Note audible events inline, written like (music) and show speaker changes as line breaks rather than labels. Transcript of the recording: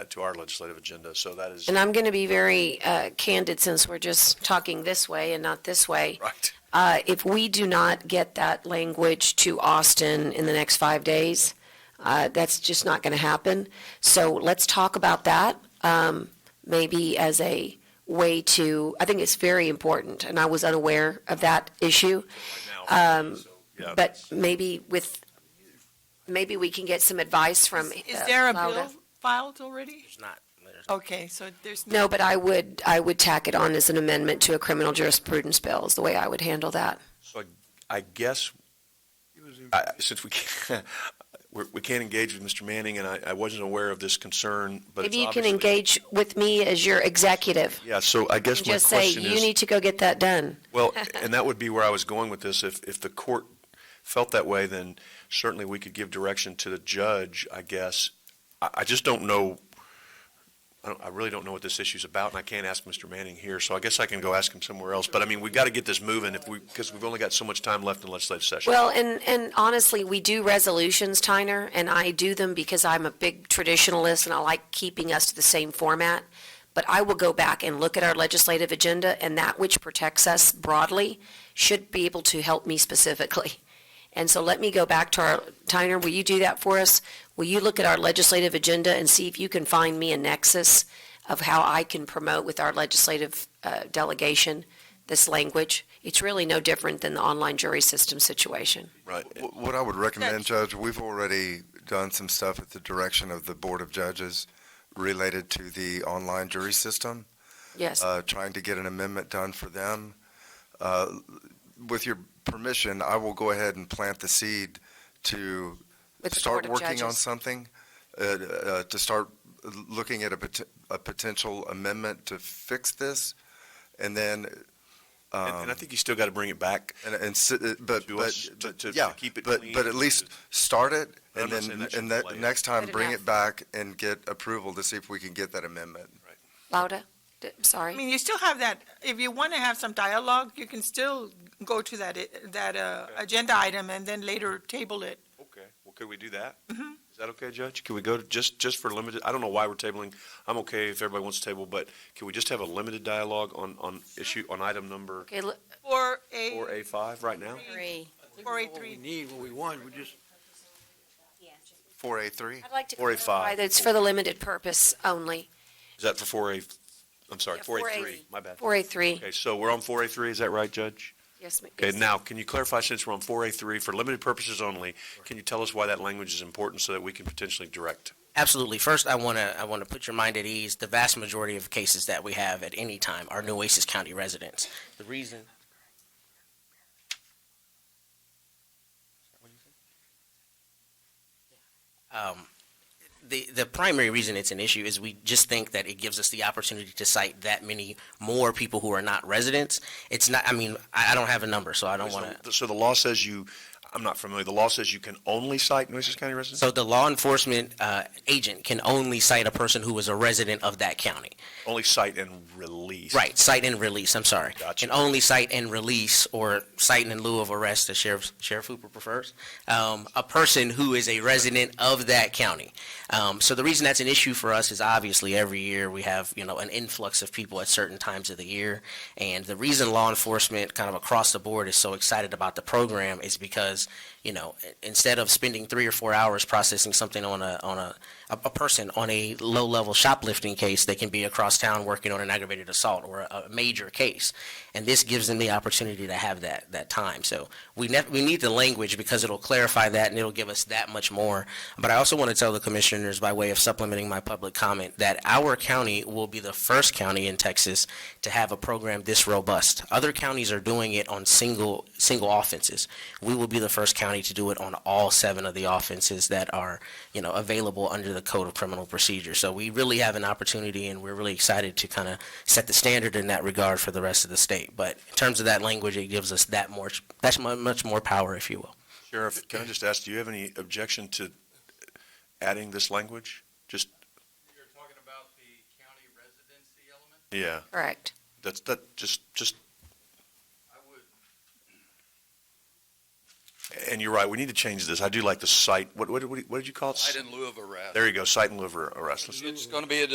to our legislative agenda, so that is,
And I'm going to be very uh, candid since we're just talking this way and not this way.
right,
Uh, If we do not get that language to Austin in the next five days, uh, that's just not going to happen. So let's talk about that, um, maybe as a way to, I think it's very important, and I was unaware of that issue.
now. So, yeah,
Um, But maybe with, maybe we can get some advice from.
Is
uh,
there a
Laura.
bill filed already?
There's not, there's
Okay, so there's.
No, but I would, I would tack it on as an amendment to a criminal jurisprudence bill is the way I would handle that.
So I I guess, I- since we can't, (laughs) we're- we can't engage with Mr. Manning, and I I wasn't aware of this concern, but it's
Maybe you can
obviously-
engage with me as your executive
Yeah, so I guess
and
my
just say,
question
you
is,
need to go get that done.
well, and that would be where I was going with this. If, if the court felt that way, then certainly we could give direction to the judge, I guess. I, I just don't know, I don't, I really don't know what this issue's about, and I can't ask Mr. Manning here, so I guess I can go ask him somewhere else. But I mean, we've got to get this moving if we, because we've only got so much time left in legislative session.
Well, and, and honestly, we do resolutions, Tyner, and I do them because I'm a big traditionalist and I like keeping us to the same format. But I will go back and look at our legislative agenda and that which protects us broadly should be able to help me specifically. (laughs) And so let me go back to our, Tyner, will you do that for us? Will you look at our legislative agenda and see if you can find me a nexus of how I can promote with our legislative uh, delegation this language? It's really no different than the online jury system situation.
Right.
Wh- What I would recommend, Judge, we've already done some stuff at the direction of the Board of Judges related to the online jury system,
Yes.
uh, trying to get an amendment done for them. Uh, With your permission, I will go ahead and plant the seed to
With the Board
start
of
working on
Judges.
something, uh, uh, to start looking at a pot- a potential amendment to fix this, and then,
And, and I think you still got to bring it back.
and, and, si- uh, but,
To
but,
us, to-
but-
to- to
yeah,
keep it
but,
clean
but at
and
least start it,
I'm not
and then,
saying that should
and that,
delay it.
next time,
Good
bring
enough.
it back and get approval to see if we can get that amendment.
Lauda, D-
I
sorry.
mean, you still have that, if you want to have some dialogue, you can still go to that, i- that uh, agenda item and then later table it.
Okay, well, could we do that? Is that okay, Judge? Can we go to, just, just for limited, I don't know why we're tabling, I'm okay if everybody wants to table, but can we just have a limited dialogue on, on issue, on item number
Okay, l-
Or
four
a,
A five right now?
or a three.
we need, what we want, we just,
Four A three?
I'd like to
Four A
clarify
five.
that it's for the limited purpose only.
Is that for four A, I'm sorry,
Yeah,
four A
4A.
three, my bad.
4A3,
Okay, so we're on four A three, is that right, Judge?
yes. ma-
Okay,
yes.
now, can you clarify, since we're on four A three, for limited purposes only, can you tell us why that language is important so that we can potentially direct?
absolutely. First, I want to, I want to put your mind at ease. The vast majority of cases that we have at any time are Nueces County residents. The reason. Um, the, the primary reason it's an issue is we just think that it gives us the opportunity to cite that many more people who are not residents. It's not, I mean, I, I don't have a number, so I don't want to.
So the law says you, I'm not familiar, the law says you can only cite Nueces County residents?
So the law enforcement uh, agent can only cite a person who is a resident of that county.
Only cite and release.
Right, cite and release, I'm sorry.
Gotcha.
Can only cite and release, or cite in lieu of arrest, as Sheriff, Sheriff Hooper prefers, um, a person who is a resident of that county. Um, So the reason that's an issue for us is obviously every year we have, you know, an influx of people at certain times of the year. And the reason law enforcement kind of across the board is so excited about the program is because, you know, i- instead of spending three or four hours processing something on a, on a, a, a person on a low-level shoplifting case, they can be across town working on an aggravated assault or a, a major case. And this gives them the opportunity to have that, that time. So we nev- we need the language because it'll clarify that and it'll give us that much more. But I also want to tell the commissioners by way of supplementing my public comment that our county will be the first county in Texas to have a program this robust. Other counties are doing it on single, single offenses. We will be the first county to do it on all seven of the offenses that are, you know, available under the Code of Criminal Procedure. So we really have an opportunity and we're really excited to kind of set the standard in that regard for the rest of the state. But in terms of that language, it gives us that more, that's mu- much more power, if you will.
Sheriff, can I just ask, do you have any objection to adding this language? Just,
You're talking about the county residency element?
yeah,
Correct.
that's, that, just, just,
I would,
And you're right, we need to change this. I do like the site, what, what, what did you call it?
Cite in lieu of arrest.
There you go, site and liver arrest. Let's-
It's going to be a